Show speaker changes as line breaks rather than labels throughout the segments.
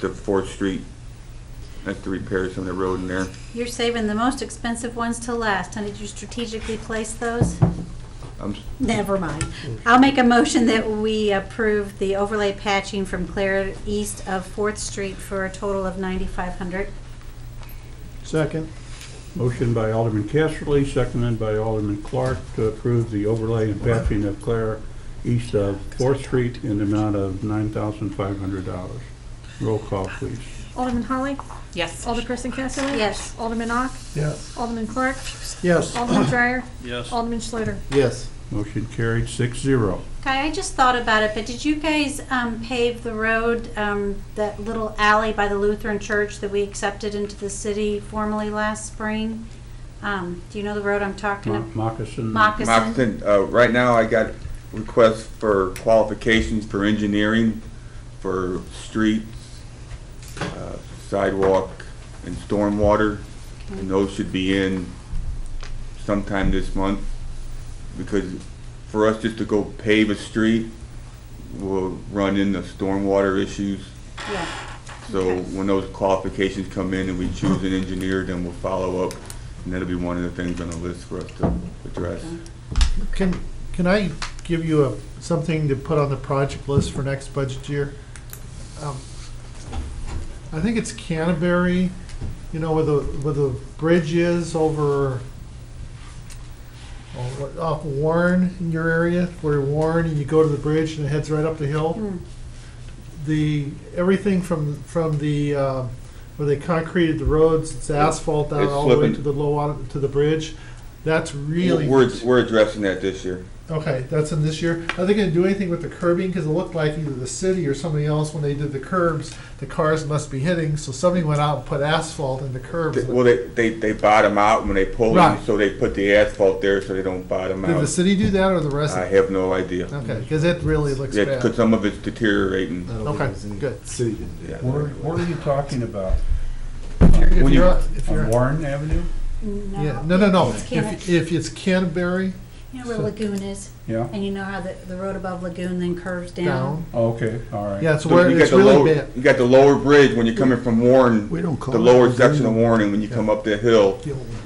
to Fourth Street. I have to repair some of the road in there.
You're saving the most expensive ones to last, and did you strategically place those?
I'm,
Never mind. I'll make a motion that we approve the overlay patching from Clear East of Fourth Street for a total of ninety-five hundred.
Second.
Motion by Alderman Casterly, seconded by Alderman Clark to approve the overlay and patching of Clare east of Fourth Street in the amount of nine thousand five hundred dollars. Roll call, please.
Alderman Holly?
Yes.
Alderperson Casterly?
Yes.
Alderman Ock?
Yes.
Alderman Clark?
Yes.
Alderman Dreyer?
Yes.
Alderman Schluter?
Yes.
Motion carried six zero.
Okay, I just thought about it, but did you guys, um, pave the road, um, that little alley by the Lutheran church that we accepted into the city formally last spring? Um, do you know the road I'm talking
Mo-
about?
Moccasin.
Moccasin?
Moxton, uh, right now I got requests for qualifications for engineering, for streets, uh, sidewalk, and stormwater. And those should be in sometime this month. Because for us just to go pave a street, we'll run into stormwater issues.
Yeah.
So
Okay.
when those qualifications come in and we choose an engineer, then we'll follow up. And that'll be one of the things on the list for us to address.
Can, can I give you a, something to put on the project list for next budget year? Um, I think it's Canterbury, you know, where the, where the bridge is over, oh, what- off Warren in your area, where Warren, and you go to the bridge and it heads right up the hill.
Hmm.
the everything from from the um, where they concreted the roads, it's asphalt down
It's
all the way
slipping.
to the low water, to the bridge. That's really
We're, we're addressing that this year.
okay. That's in this year. Are they going to do anything with the curbing? Because it looked like either the city or somebody else when they did the curbs, the cars must be hitting. So somebody went out and put asphalt in the curbs.
They- Well, they, they, they bottom out when they pull
Right.
in, so they put the asphalt there so they don't bottom
did the
out.
city do that or the
I
resident?
have no idea.
Okay, because it really looks
Yeah,
bad. Uh,
because some of it's deteriorating.
Okay, good.
Yeah.
Where, where are you talking about?
If
When
you're
you-
on- if you're
On
on-
Warren Avenue?
yeah, no, no, no.
mm, It's
If,
Canterbury.
if it's Canterbury
You know where Lagoon is,
Yeah,
and you know how the, the road above Lagoon then curves
down,
down?
Oh, okay, all right.
yeah, it's
So
where
you got
it's
the
really
lower-
bad.
You got the lower bridge when you're coming from Warren,
We don't call
the
it
lower
Lagoon.
section of Warren, and when you come up that hill,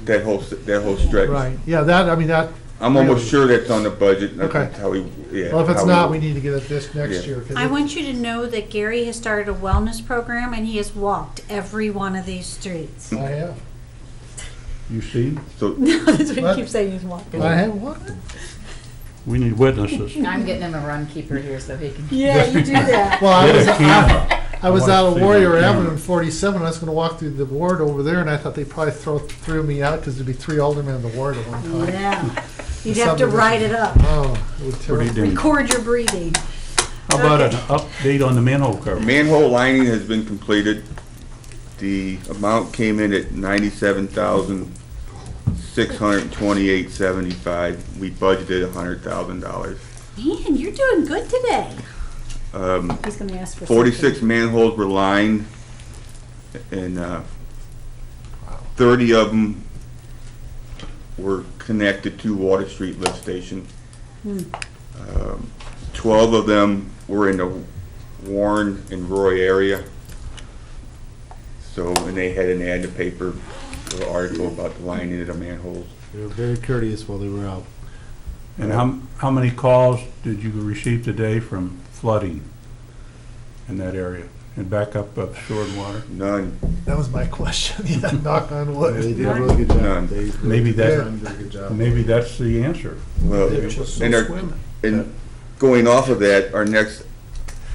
that whole, s- that whole stretch.
Right, yeah, that, I mean, that,
I'm almost sure that's on the budget. That's
Okay.
How we, yeah.
well, if it's
how
not, we need to get it this next
Yeah.
year. 'cause
I
it-
want you to know that Gary has started a wellness program, and he has walked every one of these streets.
I have,
You see,
So,
That's what
What?
he keeps saying, he's walking.
I have what?
we need witnesses.
I'm getting him a run keeper here so he can.
Yeah, you do that.
Well, I
Get
was,
a camera.
I was
wanna
out of
see
Warrior
the
Avenue
camera.
in forty-seven, I was gonna walk through the ward over there, and I thought they probably throw, threw me out, cause there'd be three aldermen in the ward at one time.
Oh, Yeah, you'd have to write it up,
Oh, it would
Pretty
terrify.
dangerous.
record your breathing.
How about an update on the manhole cover?
manhole lining has been completed. The amount came in at ninety-seven thousand, six hundred and twenty-eight seventy-five. We budgeted a hundred thousand dollars.
Man, you're doing good today.
Um,
He's gonna ask for something.
Forty-six manholes were lined, and uh, thirty of them were connected to Water Street lift station. Um, Twelve of them were in the Warren and Roy area. So, and they had an ad in the paper, an article about the lining of the manholes.
They were very courteous while they were out.
And how, how many calls did you receive today from flooding in that area and back up of stored water?
None,
That was my question, yeah, knock on
They did
wood.
a really good
None.
job. They really
Maybe
did a
that-
really good job.
Maybe that's the answer.
well.
They're just so
and they're-
swimming.
And going off of that, our next,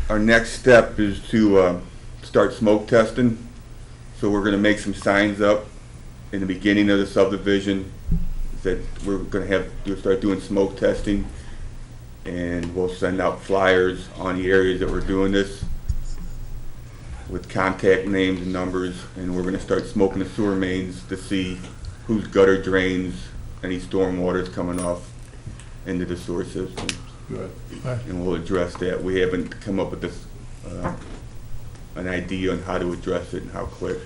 our next step is to uh, start smoke testing. So we're gonna make some signs up in the beginning of the subdivision that we're gonna have, we'll start doing smoke testing. And we'll send out flyers on the areas that we're doing this with contact names and numbers. And we're gonna start smoking the sewer mains to see whose gutter drains, any storm water's coming off into the sewer system
Good.
and we'll address that. We haven't come up with this, uh, an idea on how to address it and how quick.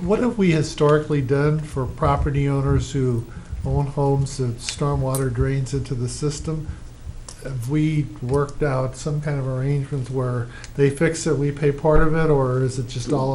What have we historically done for property owners who own homes that stormwater drains into the system? have we worked out some kind of arrangements where they fix it, we pay part of it, or is it just all